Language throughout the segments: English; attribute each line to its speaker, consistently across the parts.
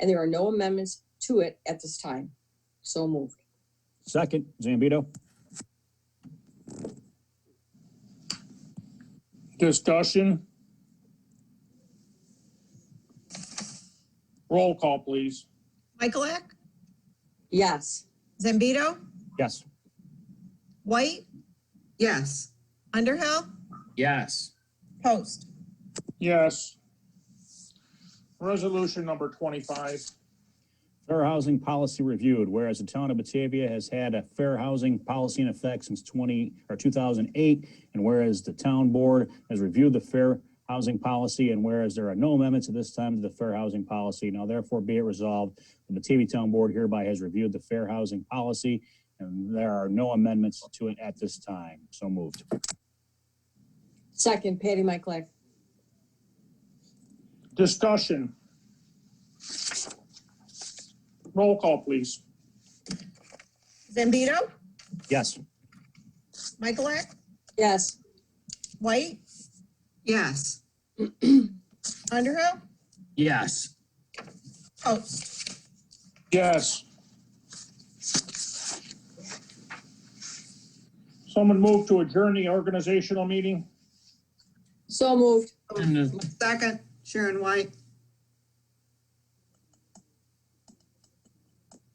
Speaker 1: and there are no amendments to it at this time. So moved.
Speaker 2: Second, Zambito.
Speaker 3: Discussion? Roll call, please.
Speaker 4: Michaelak,
Speaker 1: Yes,
Speaker 4: Zambito,
Speaker 2: Yes.
Speaker 4: White,
Speaker 5: yes,
Speaker 4: Underhill,
Speaker 6: yes,
Speaker 4: Post.
Speaker 3: Yes. Resolution number twenty-five.
Speaker 2: Fair housing policy reviewed, whereas the town of Batavia has had a fair housing policy in effect since twenty, or two thousand eight, and whereas the town board has reviewed the fair housing policy, and whereas there are no amendments at this time to the fair housing policy, now therefore be it resolved, the Batavia Town Board hereby has reviewed the fair housing policy, and there are no amendments to it at this time. So moved.
Speaker 1: second, Patty Michaelak.
Speaker 3: Discussion? Roll call, please.
Speaker 4: Zambito,
Speaker 2: Yes.
Speaker 4: Michaelak,
Speaker 1: Yes,
Speaker 4: White,
Speaker 5: yes,
Speaker 4: Underhill,
Speaker 6: yes,
Speaker 4: Post.
Speaker 3: Yes. Someone move to adjourn the organizational meeting?
Speaker 1: so moved.
Speaker 6: and
Speaker 5: second, Sharon White,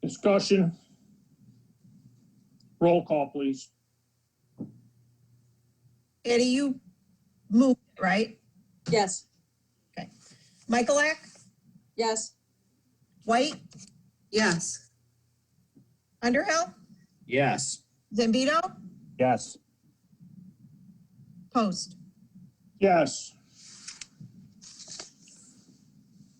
Speaker 3: Discussion? Roll call, please.
Speaker 4: Eddie, you moved, right?
Speaker 1: Yes,
Speaker 4: Michaelak,
Speaker 1: yes,
Speaker 4: White,
Speaker 5: yes,
Speaker 4: Underhill,
Speaker 6: yes,
Speaker 4: Zambito,
Speaker 2: Yes.
Speaker 4: Post.
Speaker 3: Yes.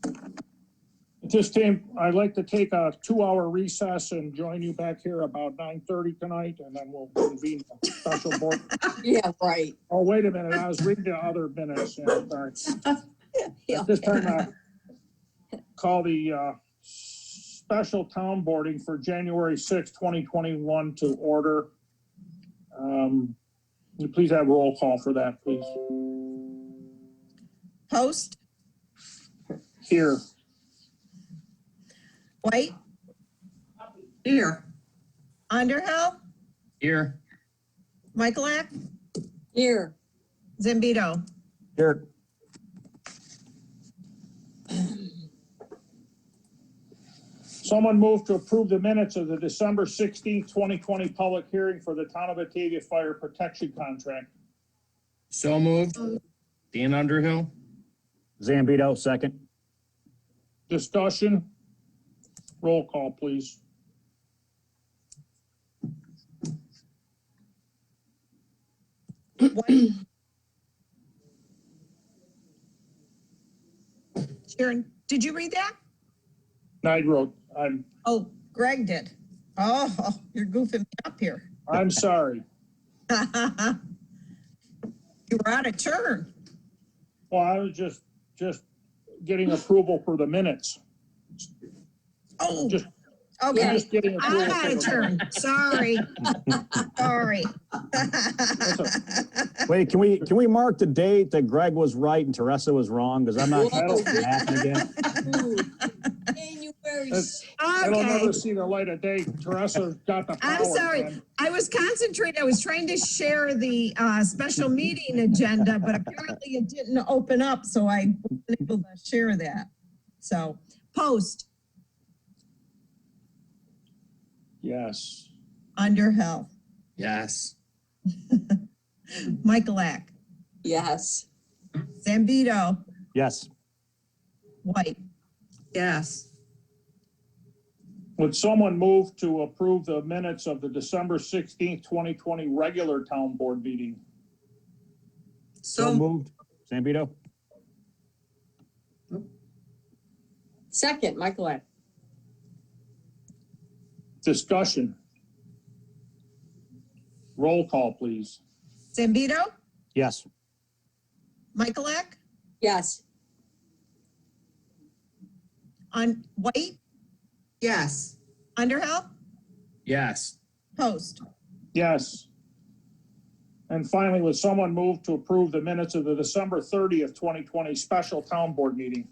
Speaker 3: At this time, I'd like to take a two-hour recess and join you back here about nine thirty tonight, and then we'll convene a special board.
Speaker 1: yeah, right.
Speaker 3: Oh, wait a minute, I was reading the other minutes, yeah, sorry. At this time, I call the, uh, special town boarding for January sixth, twenty twenty-one to order. Um, will you Please have roll call for that, please.
Speaker 4: Post,
Speaker 3: Here.
Speaker 4: White,
Speaker 5: here,
Speaker 4: Underhill,
Speaker 6: here,
Speaker 4: Michaelak,
Speaker 1: Here,
Speaker 4: Zambito.
Speaker 2: Here.
Speaker 3: Someone move to approve the minutes of the December sixteenth, twenty twenty public hearing for the Town of Batavia Fire Protection Contract.
Speaker 6: so moved. Dan Underhill,
Speaker 2: Zambito, second.
Speaker 3: Discussion? Roll call, please.
Speaker 4: White. Sharon, did you read that?
Speaker 3: Nigro, I'm,
Speaker 4: Oh, Greg did. Oh, you're goofing me up here.
Speaker 3: I'm sorry.
Speaker 4: You were out of turn.
Speaker 3: Well, I was just, just getting approval for the minutes.
Speaker 4: Oh,
Speaker 3: Just- I'm
Speaker 4: okay.
Speaker 3: just getting approval.
Speaker 4: I'm
Speaker 3: for
Speaker 4: out of
Speaker 3: the-
Speaker 4: turn. Sorry. Sorry.
Speaker 2: Wait, can we, can we mark the date that Greg was right and Teresa was wrong? Because I'm not.
Speaker 3: I don't-
Speaker 2: Happen again.
Speaker 1: Ooh. January,
Speaker 3: That's- It'll
Speaker 4: Okay.
Speaker 3: never see the light of day. Teresa got the power.
Speaker 4: I'm sorry.
Speaker 3: man.
Speaker 4: I was concentrating, I was trying to share the uh, special meeting agenda, but apparently it didn't open up, so I wasn't able to share that. So, Post,
Speaker 3: Yes.
Speaker 4: Underhill,
Speaker 6: yes,
Speaker 4: Michaelak,
Speaker 1: yes,
Speaker 4: Zambito,
Speaker 2: Yes.
Speaker 4: White,
Speaker 5: yes,
Speaker 3: Would someone move to approve the minutes of the December sixteenth, twenty twenty regular town board meeting?
Speaker 2: So
Speaker 5: so,
Speaker 2: moved. Zambito?
Speaker 1: second, Michaelak.
Speaker 3: Discussion. Roll call, please.
Speaker 4: Zambito,
Speaker 2: Yes.
Speaker 4: Michaelak,
Speaker 1: Yes,
Speaker 4: on White,
Speaker 5: yes,
Speaker 4: Underhill,
Speaker 6: yes,
Speaker 4: Post,
Speaker 3: Yes. And finally, would someone move to approve the minutes of the December thirtieth, twenty twenty special town board meeting?